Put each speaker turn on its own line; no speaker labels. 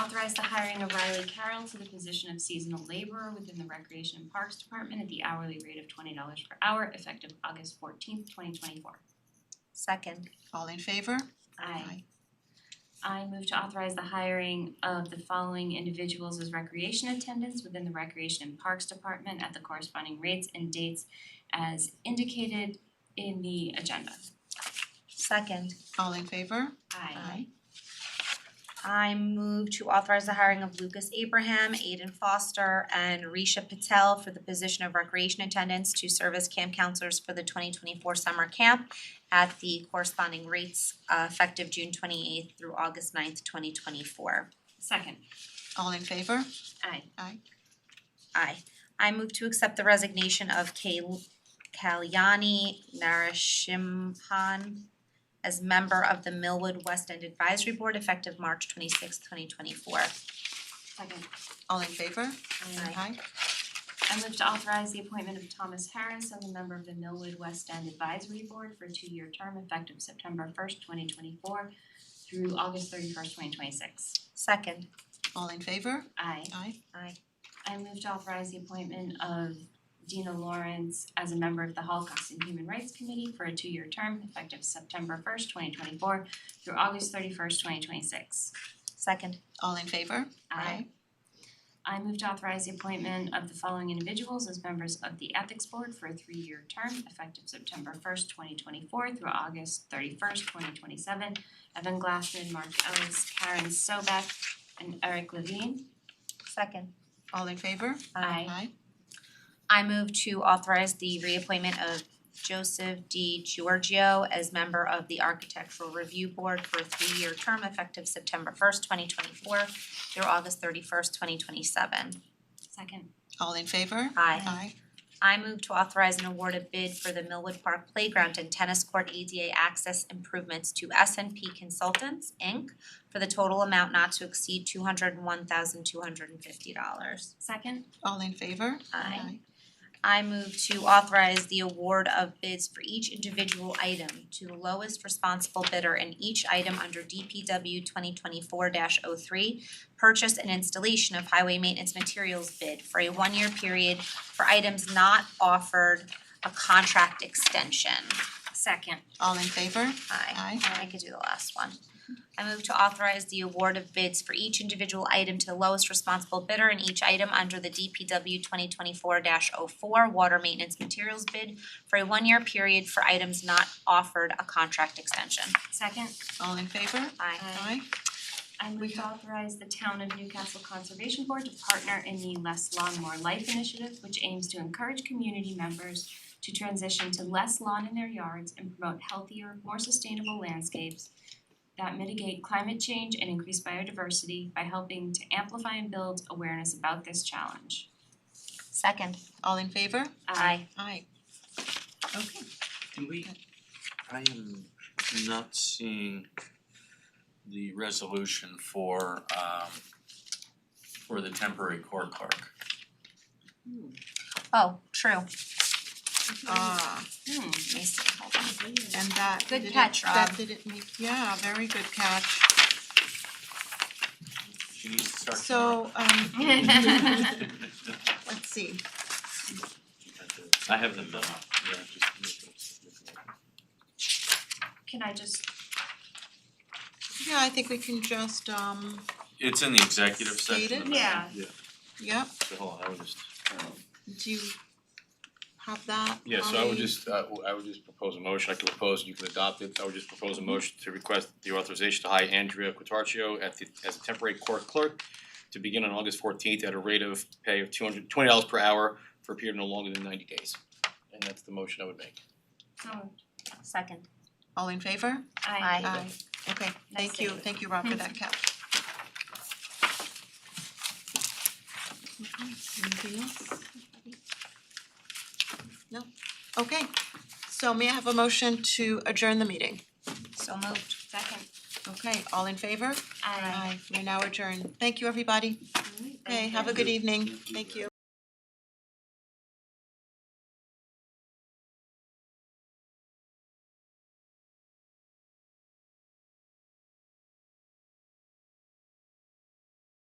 authorize the hiring of Riley Carroll to the position of seasonal laborer within the Recreation and Parks Department at the hourly rate of twenty dollars per hour effective August fourteenth, twenty twenty four.
Second.
All in favor?
Aye. I move to authorize the hiring of the following individuals as recreation attendants within the Recreation and Parks Department at the corresponding rates and dates as indicated in the agenda.
Second.
All in favor?
Aye.
I move to authorize the hiring of Lucas Abraham, Aiden Foster, and Risha Patel for the position of recreation attendants to serve as camp counselors for the twenty twenty-four summer camp at the corresponding rates uh, effective June twenty-eighth through August 9th, twenty twenty-four.
Second,
All in favor?
aye.
Aye. I move to accept the resignation of Kay Kalyani Narashimhan as member of the Millwood West End Advisory Board effective March twenty-sixth, twenty twenty-four.
Second,
All in favor?
Aye.
I move to authorize the appointment of Thomas Harris as a member of the Millwood West End Advisory Board for a two-year term effective September first, twenty twenty-four through August thirty-first, twenty twenty-six.
Second.
All in favor?
Aye.
Aye.
Aye.
I move to authorize the appointment of Dina Lawrence as a member of the Holocaust and Human Rights Committee for a two-year term effective September first, twenty twenty-four through August thirty-first, twenty twenty-six.
Second.
All in favor?
I move to authorize the appointment of the following individuals as members of the Ethics Board for a three-year term effective September first, twenty twenty-four through August thirty-first, twenty twenty-seven. Evan Glassman, Mark Ellis, Karen Sobek, and Eric Levine.
Second. Um,
All in favor?
Aye.
I move to authorize the reappointment of Joseph D. Giorgio as member of the Architectural Review Board for a three-year term effective September first, twenty twenty-four through August thirty-first, twenty twenty-seven.
Second,
All in favor?
Aye.
Aye.
I move to authorize and award a bid for the Millwood Park Playground and Tennis Court ADA access improvements to S and P Consultants, Inc. for the total amount not to exceed two hundred and one thousand two hundred and fifty dollars.
second,
All in favor?
Aye. I move to authorize the award of bids for each individual item to the lowest responsible bidder in each item under DPW twenty twenty-four 3 purchase and installation of highway maintenance materials bid for a one-year period for items not offered a contract extension.
second.
All in favor?
Aye.
Aye.
I could do the last one. I move to authorize the award of bids for each individual item to the lowest responsible bidder in each item under the DPW twenty twenty-four 4 water maintenance materials bid for a one-year period for items not offered a contract extension.
Second,
All in favor?
Aye.
Aye.
I move to authorize the town of Newcastle Conservation Board to partner in the Less Lawn More Life initiative, which aims to encourage community members to transition to less lawn in their yards and promote healthier, more sustainable landscapes that mitigate climate change and increase biodiversity by helping to amplify and build awareness about this challenge.
Second.
All in favor?
Aye.
Aye. Okay.
Can we, I am not seeing the resolution for um for the temporary court clerk.
Oh, true.
Ah,
Hmm,
Let me see, hold on.
and that
Good
didn't,
catch,
that
Rob.
didn't make, yeah, very good catch.
She needs to start.
So, um,
hmm.
let's see,
tomorrow. I have the memo, yeah, just.
Can I just,
yeah, I think we can just, um,
It's in the executive section.
Stated?
of the-
Yeah.
Yeah,
yep,
so hold on, I would just,
do you have that?
Yeah, so I would
Holly?
just, uh, w- I would just propose a motion, I could propose, you can adopt it, I would just propose a motion to request the authorization to hire Andrea Quattarcio at the, as a temporary court clerk to begin on August fourteenth at a rate of pay of two hundred, twenty dollars per hour for a period no longer than ninety days. And that's the motion I would make.
oh,
Second.
All in favor?
I,
Aye.
Okay, thank you,
save.
thank you, Rob, for that cap. Okay, Anything else? No, okay, so may I have a motion to adjourn the meeting?
So moved.
second,
Okay, all in favor?
I.
Aye, we're now adjourned, thank you, everybody,
Alright,
okay,
thank
have a
you.
good evening,
Thank you.
thank you.